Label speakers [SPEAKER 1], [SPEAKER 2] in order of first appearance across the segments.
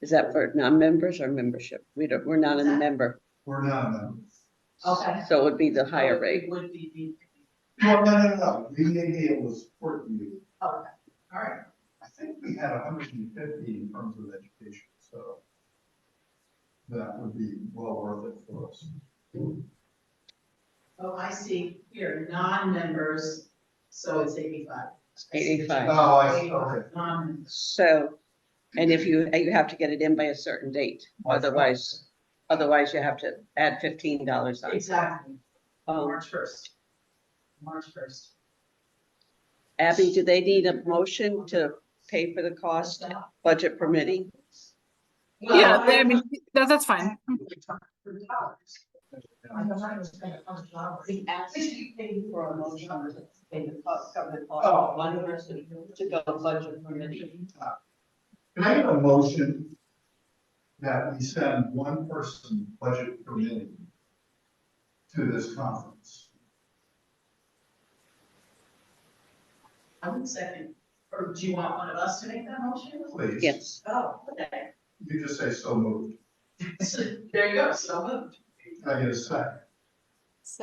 [SPEAKER 1] Is that for non-members or membership? We don't, we're not a member,
[SPEAKER 2] We're not members.
[SPEAKER 3] Okay.
[SPEAKER 1] so it would be the higher
[SPEAKER 3] It
[SPEAKER 1] rate.
[SPEAKER 3] Would be
[SPEAKER 2] No, no, no, no, the EAA was fourteen.
[SPEAKER 3] the, okay, all right.
[SPEAKER 2] I think we had hundred and fifty in terms of education, so that would be well worth it for us.
[SPEAKER 3] Oh, I see here, non-members, so it's eighty-five.
[SPEAKER 1] Eighty-five.
[SPEAKER 2] Oh, I see, okay.
[SPEAKER 3] Non-members.
[SPEAKER 1] So, and if you, you have to get it in by a certain date, otherwise, otherwise you have to add fifteen dollars on.
[SPEAKER 3] Exactly,
[SPEAKER 1] Um,
[SPEAKER 3] March first. March first.
[SPEAKER 1] Abby, do they need a motion to pay for the cost, budget permitting?
[SPEAKER 4] Yeah, I mean, that, that's fine.
[SPEAKER 3] I'm not gonna spend a hundred dollars.
[SPEAKER 5] We actually paid for a motion to pay the cost, cover the cost
[SPEAKER 3] Oh.
[SPEAKER 5] of one person to go budget permitting.
[SPEAKER 2] Can I have a motion that we send one person budget permitting to this conference?
[SPEAKER 3] I would second, or do you want one of us to make that motion?
[SPEAKER 2] Please.
[SPEAKER 1] Yes,
[SPEAKER 3] Oh, okay.
[SPEAKER 2] You just say so moved.
[SPEAKER 3] So there you go, so moved.
[SPEAKER 2] Can I get a second?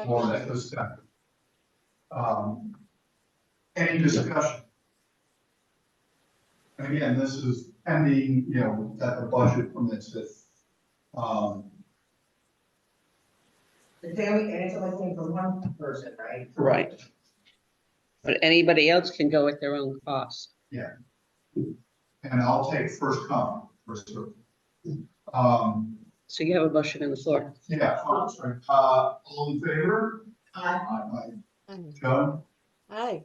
[SPEAKER 2] More than a second. Um, Any discussion? And again, this is pending, you know, that the budget permits it. Um,
[SPEAKER 5] The daily, and it's only thing for one person, right?
[SPEAKER 1] right. But anybody else can go at their own cost.
[SPEAKER 2] and I'll take first come, first served. Um,
[SPEAKER 1] So you have a motion on the floor.
[SPEAKER 2] yeah, fine, sorry. uh, all in favor?
[SPEAKER 3] Aye.
[SPEAKER 2] Aye, aye.
[SPEAKER 6] Aye.
[SPEAKER 2] Joan?
[SPEAKER 6] Aye.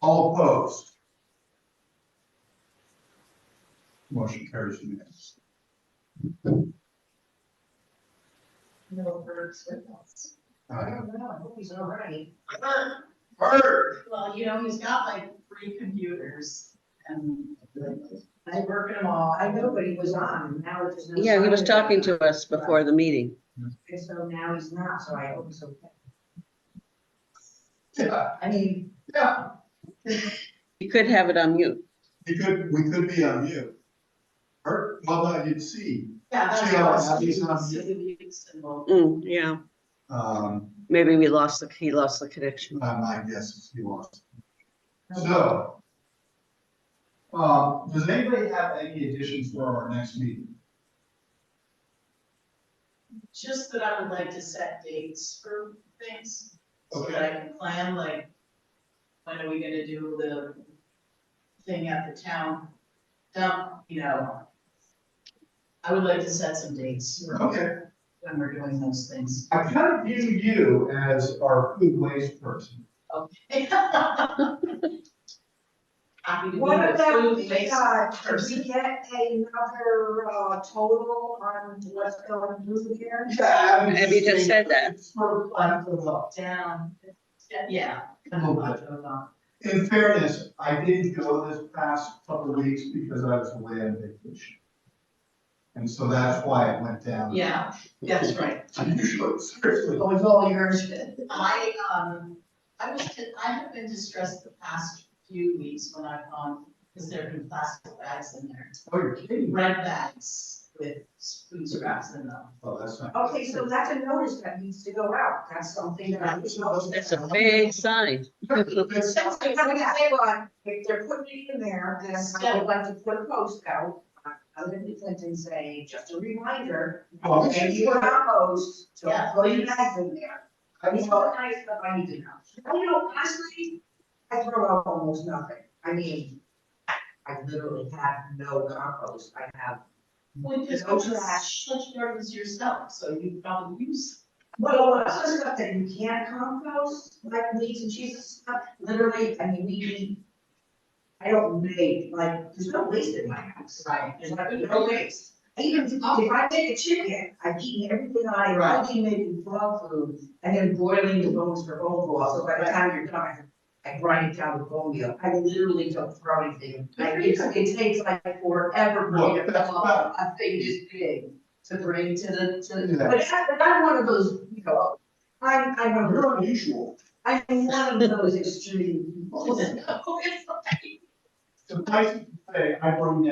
[SPEAKER 2] All opposed? Motion carries unanimously.
[SPEAKER 3] No words with us.
[SPEAKER 5] I
[SPEAKER 2] Uh,
[SPEAKER 5] don't know, I hope he's all right.
[SPEAKER 2] Bird.
[SPEAKER 3] Well, you know, he's got like three computers and I work them all.
[SPEAKER 5] I know, but he was on, and now it's just. no
[SPEAKER 1] Yeah, he was
[SPEAKER 5] sign of
[SPEAKER 1] talking
[SPEAKER 5] it.
[SPEAKER 1] to us before the meeting.
[SPEAKER 5] And so now he's not, so I hope he's okay.
[SPEAKER 2] Yeah,
[SPEAKER 5] I mean,
[SPEAKER 2] yeah,
[SPEAKER 1] You could have it on mute.
[SPEAKER 2] we could, we could be on mute. Bert, well, I did see,
[SPEAKER 3] Yeah, that's
[SPEAKER 2] See how
[SPEAKER 3] awesome.
[SPEAKER 2] happy he's on
[SPEAKER 3] See the mute symbol.
[SPEAKER 1] Mm, yeah,
[SPEAKER 2] um,
[SPEAKER 1] maybe we lost the, he lost the connection.
[SPEAKER 2] uh, my guess is he was. So. Uh, does anybody have any additions for our next meeting?
[SPEAKER 3] Just that I would like to set dates for things, so that I
[SPEAKER 2] Okay.
[SPEAKER 3] can plan, like, when are we gonna do the thing at the town dump, you know? I would like to set some dates for
[SPEAKER 2] Okay,
[SPEAKER 3] when we're doing those things.
[SPEAKER 2] I kind of view you as our food waste person.
[SPEAKER 3] Happy to be
[SPEAKER 5] what
[SPEAKER 3] the
[SPEAKER 5] about,
[SPEAKER 3] food
[SPEAKER 5] the,
[SPEAKER 3] waste
[SPEAKER 5] uh, did we
[SPEAKER 3] person.
[SPEAKER 5] get another, uh, total on what's going through here?
[SPEAKER 2] Yeah. I was
[SPEAKER 1] Maybe you just
[SPEAKER 2] thinking-
[SPEAKER 1] said that.
[SPEAKER 2] It's sort of like the law.
[SPEAKER 3] Down, yeah, kind of a lot going on.
[SPEAKER 2] In fairness, I didn't go this past couple of weeks because I was away on vacation. And so that's why it went down.
[SPEAKER 3] Yeah, that's right.
[SPEAKER 2] Usually, seriously.
[SPEAKER 3] was all yours. I, um, I was, I have been distressed the past few weeks when I've gone, because there have been plastic bags in there.
[SPEAKER 2] Oh, you're kidding.
[SPEAKER 3] Red bags with food scraps in them.
[SPEAKER 2] Oh, that's not.
[SPEAKER 5] Okay, so that's a notice that needs to go out, that's something that I just noticed.
[SPEAKER 1] That's a big sign.
[SPEAKER 5] If something comes out, if they're putting it in there, then I would like to put a post out, uh, other than Clinton say, just a reminder.
[SPEAKER 2] Well, we
[SPEAKER 5] And
[SPEAKER 2] should-
[SPEAKER 5] you compost, so
[SPEAKER 3] Yeah,
[SPEAKER 5] put your
[SPEAKER 3] please.
[SPEAKER 5] bags in there.
[SPEAKER 2] I
[SPEAKER 5] It's
[SPEAKER 2] mean,
[SPEAKER 5] not nice, but I need to know. I don't know, honestly, I throw out almost nothing, I mean, I I literally have no compost, I have,
[SPEAKER 3] Well, because
[SPEAKER 5] No
[SPEAKER 3] it's
[SPEAKER 5] trash.
[SPEAKER 3] such garbage yourself, so you probably use.
[SPEAKER 5] well, other stuff that you can't compost, like leaves and cheese and stuff, literally, I mean, we eat. I don't make, like, there's no waste in my house.
[SPEAKER 3] Right.
[SPEAKER 5] There's not, no waste. I Even if I make a chicken, I've eaten everything I,
[SPEAKER 3] Right.
[SPEAKER 5] I've even making dog food, and then boiling the bones for overall, so by the time you're done, I grind it down with bone meal, I literally don't throw anything.
[SPEAKER 3] Good
[SPEAKER 5] Like,
[SPEAKER 3] for
[SPEAKER 5] it's,
[SPEAKER 3] you.
[SPEAKER 5] it takes like forever for me
[SPEAKER 2] Well,
[SPEAKER 5] to
[SPEAKER 2] that's
[SPEAKER 5] fill up a thing this big to bring to the, to the,
[SPEAKER 2] Yeah.
[SPEAKER 5] but I, but I'm one of those, you know, I'm, I'm a
[SPEAKER 2] You're
[SPEAKER 5] real,
[SPEAKER 2] unusual.
[SPEAKER 5] I'm one of those extreme people.
[SPEAKER 3] No, it's like-
[SPEAKER 2] Suffice it to say, I bring